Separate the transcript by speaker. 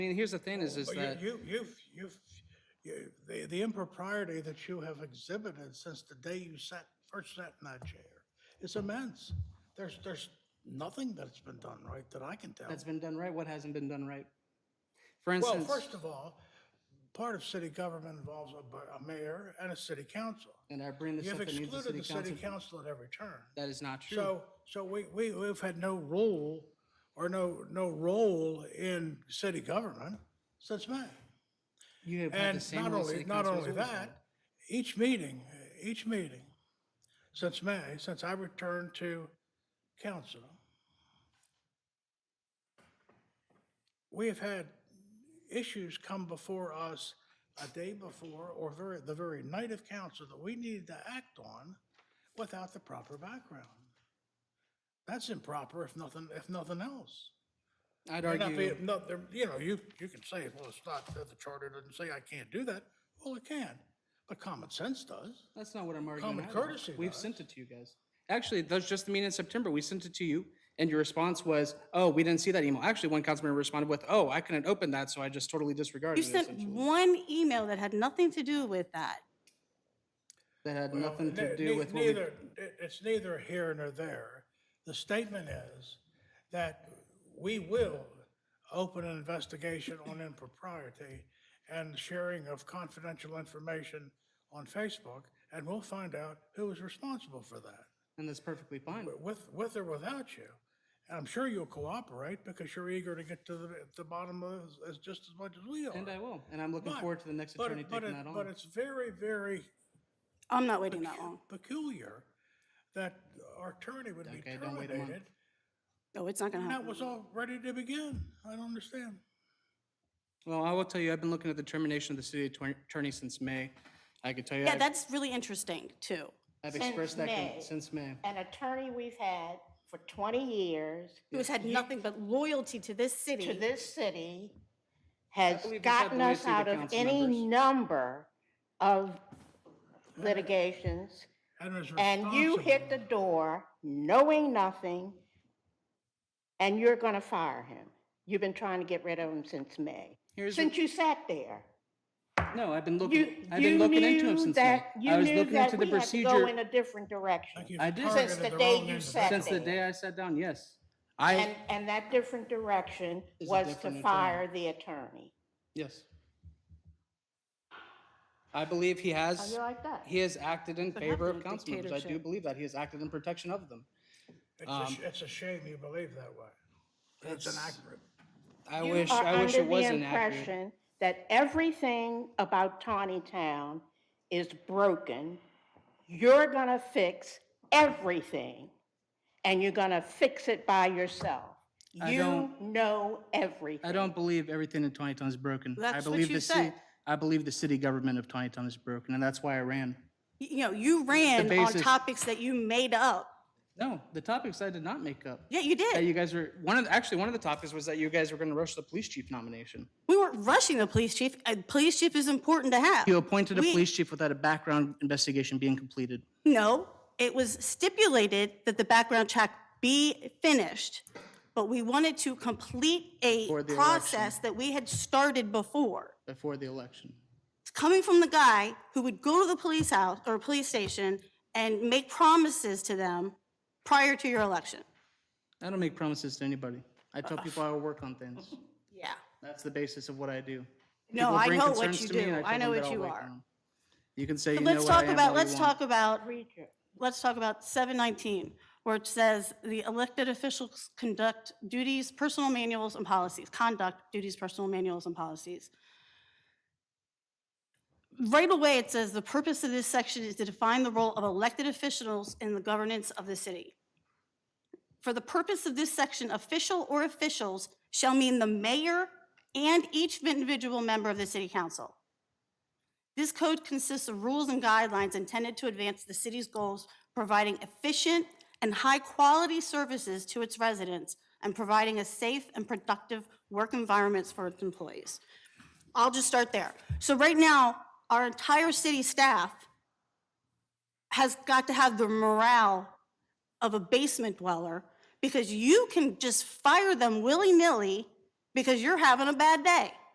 Speaker 1: I mean, here's the thing is, is
Speaker 2: Oh, But you-
Speaker 1: that,
Speaker 2: You, you've, you've, you, the, the impropriety that you have exhibited since the day you sat, first sat in that chair is immense. There's, there's nothing that's been done right that I can tell.
Speaker 1: that's been done right, what hasn't been done right? For
Speaker 2: Well,
Speaker 1: instance,
Speaker 2: first of all, part of city government involves a, bu- a mayor and a city council.
Speaker 1: and I bring this
Speaker 2: You've
Speaker 1: up in needs of
Speaker 2: excluded
Speaker 1: city
Speaker 2: the city
Speaker 1: council,
Speaker 2: council at every turn.
Speaker 1: that is not true.
Speaker 2: So, so we, we, we've had no role or no, no role in city government since May.
Speaker 1: You have had the
Speaker 2: And
Speaker 1: same
Speaker 2: not
Speaker 1: role
Speaker 2: only,
Speaker 1: city
Speaker 2: not
Speaker 1: council has
Speaker 2: only
Speaker 1: always had.
Speaker 2: that, each meeting, each meeting, since May, since I returned to council, we have had issues come before us a day before or very, the very night of council that we needed to act on without the proper background. That's improper if nothing, if nothing else.
Speaker 1: I'd
Speaker 2: May not be-
Speaker 1: argue,
Speaker 2: No, there, you know, you, you can say, well, it's not, that the charter doesn't say I can't do that. Well, it can, but common sense does.
Speaker 1: that's not what I'm arguing.
Speaker 2: common
Speaker 1: either.
Speaker 2: courtesy
Speaker 1: We've
Speaker 2: does.
Speaker 1: sent it to you guys. Actually, that's just the meeting in September. We sent it to you and your response was, oh, we didn't see that email. Actually, one councilman responded with, oh, I couldn't open that, so I just totally disregarded
Speaker 3: You
Speaker 1: it
Speaker 3: sent
Speaker 1: essentially.
Speaker 3: one email that had nothing to do with that.
Speaker 1: That had nothing to
Speaker 2: Ne-
Speaker 1: do
Speaker 2: ne-
Speaker 1: with what we
Speaker 2: Neither, it- it's neither here nor there. The statement is that we will open an investigation on impropriety and sharing of confidential information on Facebook, and we'll find out who is responsible for that.
Speaker 1: and that's perfectly fine.
Speaker 2: with, with or without you. And I'm sure you'll cooperate because you're eager to get to the, the bottom of this as, just as much as we are.
Speaker 1: And I will, and I'm looking
Speaker 2: But-
Speaker 1: forward to the next
Speaker 2: But
Speaker 1: attorney
Speaker 2: it- but
Speaker 1: taking
Speaker 2: it-
Speaker 1: that on.
Speaker 2: But it's very, very
Speaker 3: I'm not waiting that long.
Speaker 2: peculiar that our attorney would be
Speaker 1: Okay, don't wait a month.
Speaker 2: terminated.
Speaker 3: No, it's not gonna
Speaker 2: And that
Speaker 3: happen.
Speaker 2: was all ready to begin. I don't understand.
Speaker 1: Well, I will tell you, I've been looking at the termination of the city attorney- attorney since May. I can tell you,
Speaker 3: Yeah,
Speaker 1: I've
Speaker 3: that's really interesting too.
Speaker 1: I've
Speaker 4: Since
Speaker 1: expressed that con-
Speaker 4: May.
Speaker 1: since May.
Speaker 4: an attorney we've had for 20 years
Speaker 3: Who's had nothing but loyalty to this city.
Speaker 4: to this city has
Speaker 1: believe we've had
Speaker 4: gotten
Speaker 1: loyalty
Speaker 4: us
Speaker 1: to
Speaker 4: out of
Speaker 1: council
Speaker 4: any
Speaker 1: members.
Speaker 4: number of litigations,
Speaker 2: And was
Speaker 4: and you hit the
Speaker 2: responsible.
Speaker 4: door knowing nothing, and you're going to fire him. You've been trying to get rid of him since May,
Speaker 1: Here's,
Speaker 4: since you sat there.
Speaker 1: no, I've been
Speaker 4: You,
Speaker 1: looking, I've
Speaker 4: you
Speaker 1: been looking into
Speaker 4: knew
Speaker 1: him since May.
Speaker 4: that, you
Speaker 1: I was
Speaker 4: knew
Speaker 1: looking into
Speaker 4: that
Speaker 1: the
Speaker 4: we had to go
Speaker 1: procedure
Speaker 4: in a different
Speaker 2: Like
Speaker 4: direction.
Speaker 2: you've
Speaker 1: I did- Since
Speaker 2: targeted
Speaker 4: the
Speaker 2: wrong
Speaker 4: day you
Speaker 2: individual.
Speaker 4: sat
Speaker 1: since the
Speaker 4: there.
Speaker 1: day I sat down, yes.
Speaker 4: And,
Speaker 1: I,
Speaker 4: and that different direction
Speaker 1: Is a
Speaker 4: was to
Speaker 1: different attorney.
Speaker 4: fire the attorney.
Speaker 1: yes. I believe he
Speaker 4: How
Speaker 1: has,
Speaker 4: you like that?
Speaker 1: he has acted in
Speaker 3: What
Speaker 1: favor of
Speaker 3: happened to
Speaker 1: council members. I do
Speaker 3: dictatorship?
Speaker 1: believe that. He has acted in protection of them.
Speaker 2: It's
Speaker 1: Um,
Speaker 2: a, sh- it's a shame you believe that way. It's inaccurate.
Speaker 1: I
Speaker 4: You
Speaker 1: wish,
Speaker 4: are
Speaker 1: I wish it
Speaker 4: under the
Speaker 1: wasn't accurate.
Speaker 4: impression That everything about Tawny Town is broken. You're gonna fix everything, and you're gonna fix it by yourself.
Speaker 1: I
Speaker 4: You
Speaker 1: don't-
Speaker 4: know everything.
Speaker 1: I don't believe everything in Tawnytown is broken. I
Speaker 3: That's what
Speaker 1: believe
Speaker 3: you
Speaker 1: the city-
Speaker 3: said.
Speaker 1: I believe the city government of Tawnytown is broken, and that's why I ran.
Speaker 3: Y- You know, you ran on
Speaker 1: basis-
Speaker 3: topics that you made up.
Speaker 1: No, the topics I did not make up.
Speaker 3: Yeah, you
Speaker 1: That
Speaker 3: did.
Speaker 1: you guys were, one of, the- actually, one of the topics was that you guys were gonna rush the police chief nomination.
Speaker 3: We weren't rushing the police chief. A police chief is important to have.
Speaker 1: You appointed a
Speaker 3: We-
Speaker 1: police chief without a background investigation being completed.
Speaker 3: No, it was stipulated that the background check be finished, but we wanted to complete a
Speaker 1: Before the
Speaker 3: process that we had started before.
Speaker 1: before the election.
Speaker 3: It's coming from the guy who would go to the police house or police station and make promises to them prior to your election.
Speaker 1: I don't make promises to anybody. I
Speaker 3: Uh,
Speaker 1: tell people I will work on things.
Speaker 3: Yeah.
Speaker 1: That's the basis of what I do.
Speaker 3: No,
Speaker 1: People
Speaker 3: I
Speaker 1: bring
Speaker 3: know what
Speaker 1: concerns
Speaker 3: you
Speaker 1: to me and
Speaker 3: do.
Speaker 1: tell
Speaker 3: I know
Speaker 1: them that
Speaker 3: what
Speaker 1: I'll
Speaker 3: you
Speaker 1: work
Speaker 3: are.
Speaker 1: on 'em. You can say you
Speaker 3: But
Speaker 1: know
Speaker 3: let's
Speaker 1: what I
Speaker 3: talk
Speaker 1: am
Speaker 3: about,
Speaker 1: all you
Speaker 3: let's talk
Speaker 1: want.
Speaker 3: about,
Speaker 4: Preacher.
Speaker 3: let's talk about seven nineteen, where it says the elected officials conduct duties, personal manuals and policies, conduct duties, personal manuals and policies. Right away, it says the purpose of this section is to define the role of elected officials in the governance of the city. For the purpose of this section, official or officials shall mean the mayor and each individual member of the city council. This code consists of rules and guidelines intended to advance the city's goals, providing efficient and high-quality services to its residents and providing a safe and productive work environments for its employees. I'll just start there. So right now, our entire city staff has got to have the morale of a basement dweller because you can just fire them willy-nilly because you're having a bad day.